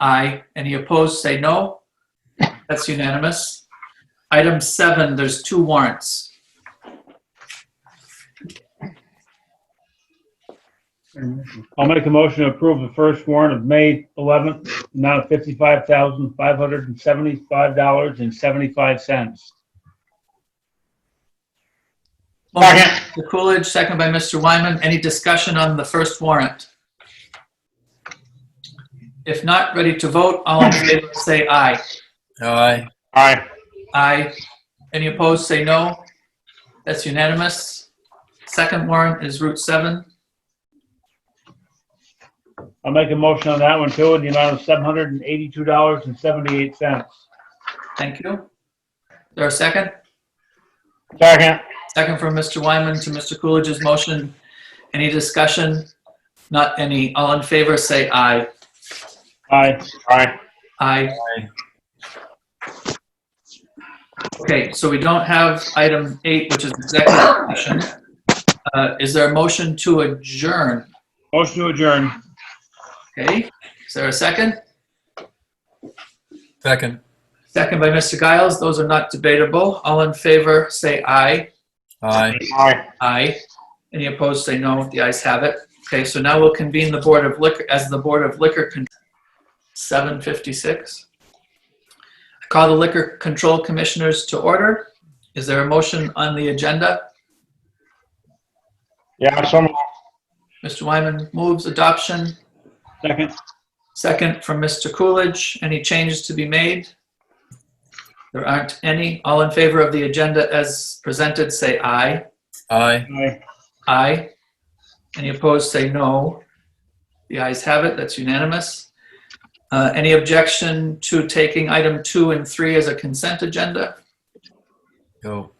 Aye. Any opposed, say no. That's unanimous. Item seven, there's two warrants. I'll make a motion to approve the first warrant of May 11th, amount of $55,575.75. Motion by Mr. Coolidge, second by Mr. Wyman. Any discussion on the first warrant? If not, ready to vote, all in favor, say aye. Aye. Aye. Aye. Any opposed, say no. That's unanimous. Second warrant is Route 7. I'll make a motion on that one too, in the amount of $782.78. Thank you. There a second? Second. Second from Mr. Wyman to Mr. Coolidge's motion. Any discussion? Not any. All in favor, say aye. Aye. Aye. Aye. Okay, so we don't have item eight, which is executive session. Uh, Is there a motion to adjourn? Motion to adjourn. Okay, is there a second? Second. Second by Mr. Giles. Those are not debatable. All in favor, say aye. Aye. Aye. Aye. Any opposed, say no. The ayes have it. Okay, so now we'll convene the Board of Liquor, as the Board of Liquor, Con- 7:56. I Call the Liquor Control Commissioners to order. Is there a motion on the agenda? Yeah, so moved. Mr. Wyman moves adoption. Second. Second from Mr. Coolidge. Any changes to be made? There aren't any. All in favor of the agenda as presented, say aye. Aye. Aye. Aye. Any opposed, say no. The ayes have it, that's unanimous. Uh, Any objection to taking item two and three as a consent agenda? Go.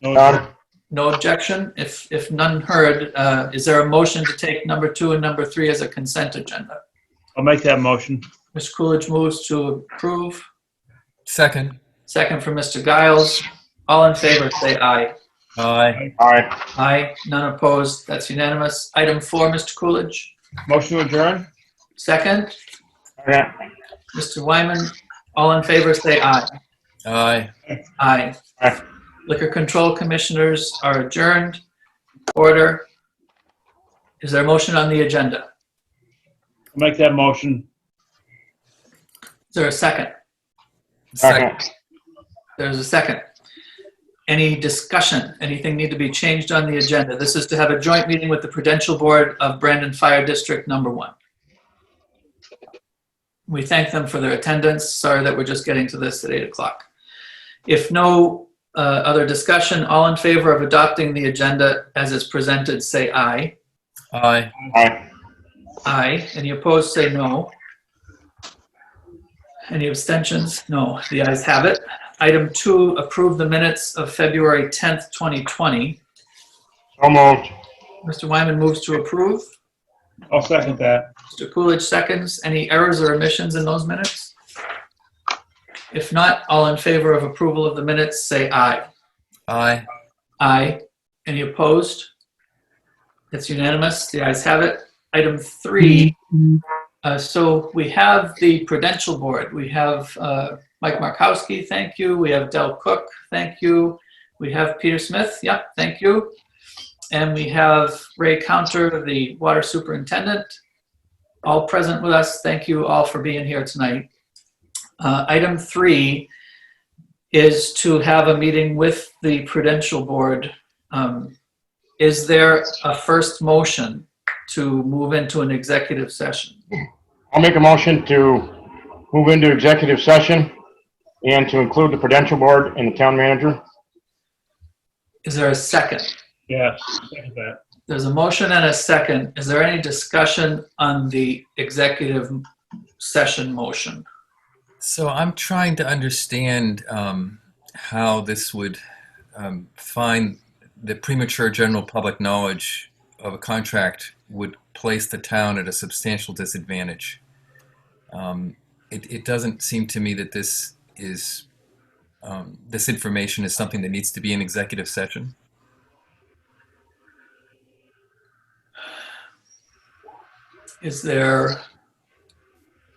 No, No objection? If, if none heard, uh, is there a motion to take number two and number three as a consent agenda? I'll make that motion. Ms. Coolidge moves to approve, Second. second from Mr. Giles. All in favor, say aye. Aye. Aye. Aye, none opposed, that's unanimous. Item four, Mr. Coolidge, Motion to adjourn? second. Second. Mr. Wyman, all in favor, say aye. Aye. Aye. Aye. Liquor Control Commissioners are adjourned. Order. Is there a motion on the agenda? I'll make that motion. Is there a second? Second. There's a second. Any discussion? Anything need to be changed on the agenda? This is to have a joint meeting with the Prudential Board of Brandon Fire District Number One. We thank them for their attendance. Sorry that we're just getting to this at 8 o'clock. If no uh, other discussion, all in favor of adopting the agenda as is presented, say aye. Aye. Aye. Aye. Any opposed, say no. Any abstentions? No. The ayes have it. Item two, approve the minutes of February 10th, 2020. So moved. Mr. Wyman moves to approve. I'll second that. Mr. Coolidge seconds. Any errors or omissions in those minutes? If not, all in favor of approval of the minutes, say aye. Aye. Aye. Any opposed? It's unanimous. The ayes have it. Item three. Uh, So we have the Prudential Board. We have uh, Mike Markowski, thank you. We have Del Cook, thank you. We have Peter Smith, yeah, thank you. And we have Ray Counter, the Water Superintendent, all present with us. Thank you all for being here tonight. Uh, Item three is to have a meeting with the Prudential Board. Um, Is there a first motion to move into an executive session? I'll make a motion to move into executive session and to include the Prudential Board and the town manager. Is there a second? Yes, second that. There's a motion and a second. Is there any discussion on the executive session motion? So I'm trying to understand um, how this would um, find the premature general public knowledge of a contract would place the town at a substantial disadvantage. Um, it, it doesn't seem to me that this is um, this information is something that needs to be in executive session. Is there